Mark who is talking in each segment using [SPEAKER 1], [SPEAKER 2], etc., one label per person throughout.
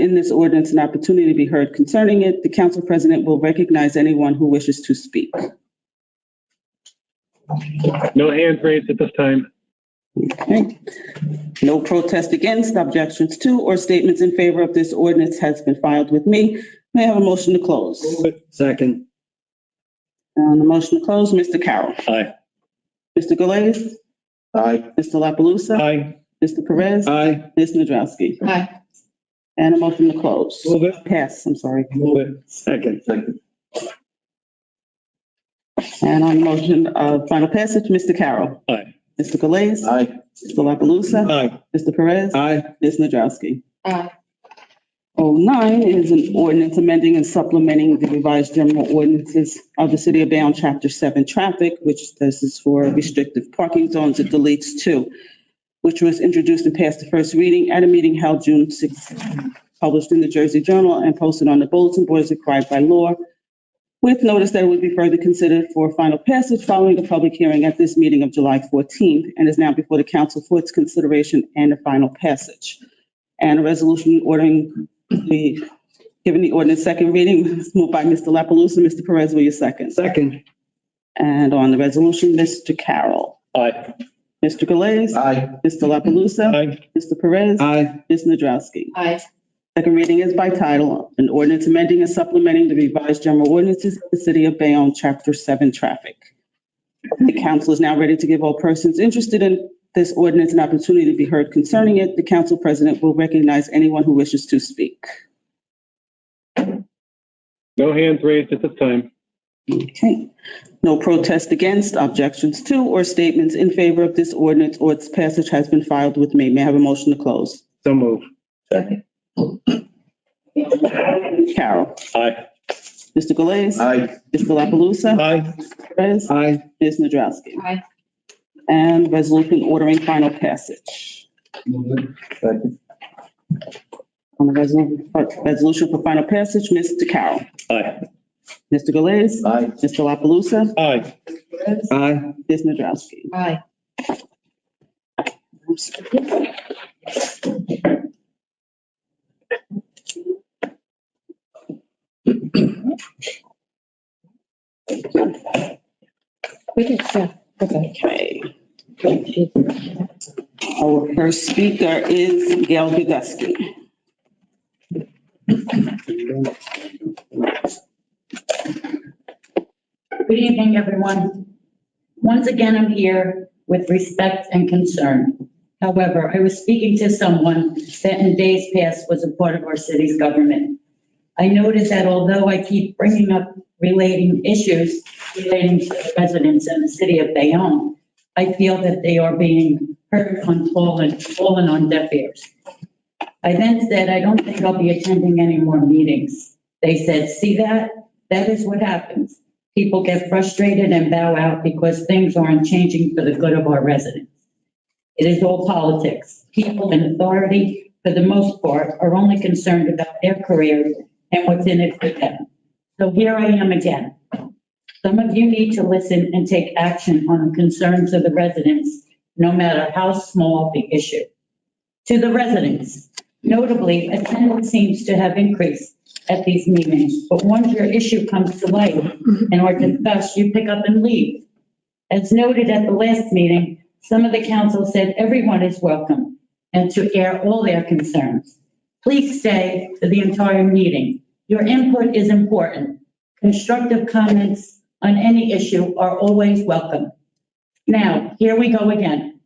[SPEAKER 1] in this ordinance an opportunity to be heard concerning it. The council president will recognize anyone who wishes to speak.
[SPEAKER 2] No hands raised at this time.
[SPEAKER 1] Okay. No protest against objections to or statements in favor of this ordinance has been filed with me. May I have a motion to close? Uh,
[SPEAKER 3] Second.
[SPEAKER 1] On the motion to close, Mr. Carroll.
[SPEAKER 3] Aye.
[SPEAKER 1] Mr. Galais.
[SPEAKER 3] Aye.
[SPEAKER 1] Mr. La Palusa.
[SPEAKER 3] Aye.
[SPEAKER 1] Mr. Perez.
[SPEAKER 3] Aye.
[SPEAKER 1] Ms. Nadrowski.
[SPEAKER 4] Aye.
[SPEAKER 1] And a motion to close.
[SPEAKER 3] Move it.
[SPEAKER 1] Pass, I'm sorry.
[SPEAKER 3] Move it. Second.
[SPEAKER 1] And on the motion of final passage, Mr. Carroll.
[SPEAKER 3] Aye.
[SPEAKER 1] Mr. Galais.
[SPEAKER 3] Aye.
[SPEAKER 1] Mr. La Palusa.
[SPEAKER 3] Aye.
[SPEAKER 1] Mr. Perez.
[SPEAKER 3] Aye.
[SPEAKER 1] Ms. Nadrowski.
[SPEAKER 4] Aye.
[SPEAKER 1] 09 is an ordinance amending and supplementing the revised general ordinances of the City of Bayonne, Chapter 7 Traffic, which this is for restrictive parking zones, it deletes two, which was introduced and passed the first reading at a meeting held June 6, published in the Jersey Journal and posted on the bulletin board as required by law, with notice that it would be further considered for final passage following a public hearing at this meeting of July 14th, and is now before the council for its consideration and a final passage. And a resolution ordering the, giving the ordinance second reading, was moved by Mr. La Palusa. Mr. Perez, will you second?
[SPEAKER 3] Second.
[SPEAKER 1] And on the resolution, Mr. Carroll.
[SPEAKER 3] Aye.
[SPEAKER 1] Mr. Galais.
[SPEAKER 3] Aye.
[SPEAKER 1] Mr. La Palusa.
[SPEAKER 3] Aye.
[SPEAKER 1] Mr. Perez.
[SPEAKER 3] Aye.
[SPEAKER 1] Ms. Nadrowski.
[SPEAKER 4] Aye.
[SPEAKER 1] Second reading is by title, an ordinance amending and supplementing the revised general ordinances of the city of Bayonne, chapter seven, traffic. The council is now ready to give all persons interested in this ordinance an opportunity to be heard concerning it. The council president will recognize anyone who wishes to speak.
[SPEAKER 2] No hands raised at this time.
[SPEAKER 1] Okay. No protest against, objections to, or statements in favor of this ordinance or its passage has been filed with me. May I have a motion to close?
[SPEAKER 3] So move.
[SPEAKER 4] Second.
[SPEAKER 1] Carol.
[SPEAKER 3] Aye.
[SPEAKER 1] Mr. Galais.
[SPEAKER 3] Aye.
[SPEAKER 1] Mr. La Palusa.
[SPEAKER 3] Aye.
[SPEAKER 1] Perez.
[SPEAKER 3] Aye.
[SPEAKER 1] Ms. Nadrowski.
[SPEAKER 4] Aye.
[SPEAKER 1] And resolution ordering final passage.
[SPEAKER 3] Second.
[SPEAKER 1] On the resolution, resolution for final passage, Mr. Carroll.
[SPEAKER 3] Aye.
[SPEAKER 1] Mr. Galais.
[SPEAKER 3] Aye.
[SPEAKER 1] Mr. La Palusa.
[SPEAKER 3] Aye. Aye.
[SPEAKER 1] Ms. Nadrowski.
[SPEAKER 4] Aye. We did, yeah, okay.
[SPEAKER 1] Okay. Our first speaker is Gail Gudusky.
[SPEAKER 5] Good evening, everyone. Once again, I'm here with respect and concern. However, I was speaking to someone that in days past was a part of our city's government. I noticed that although I keep bringing up relating issues relating to the residents in the city of Bayonne, I feel that they are being heard on tall and fallen on deaf ears. I then said, I don't think I'll be attending any more meetings. They said, see that? That is what happens people get frustrated and bow out because things aren't changing for the good of our residents. It is all politics. People in authority, for the most part, are only concerned about their careers and what's in it for them. So here I am again. Some of you need to listen and take action on the concerns of the residents, no matter how small the issue. To the residents, notably, attendance seems to have increased at these meetings, but once your issue comes to light, and are discussed, you pick up and leave. As noted at the last meeting, some of the council said everyone is welcome and to air all their concerns. Please stay for the entire meeting. Your input is important. Constructive comments on any issue are always welcome. Now, here we go again.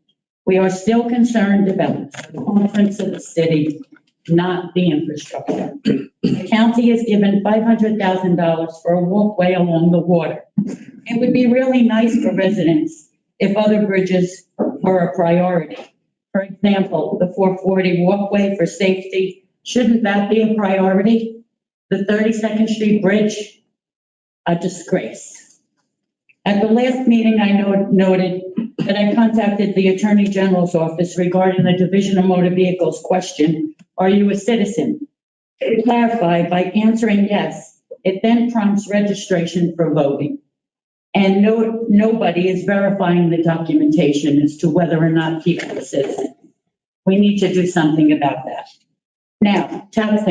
[SPEAKER 5] We are still concerned about the conference of the city, not the infrastructure. The county has given $500,000 for a walkway along the water. It would be really nice for residents if other bridges were a priority. For example, the 440 walkway for safety, shouldn't that be a priority? The 32nd Street Bridge, a disgrace. At the last meeting, I no- noted that I contacted the Attorney General's office regarding the Division of Motor Vehicles question, are you a citizen? to clarify by answering yes, it then prompts registration for voting. And no, nobody is verifying the documentation as to whether or not people are citizens. We need to do something about that. Now, tax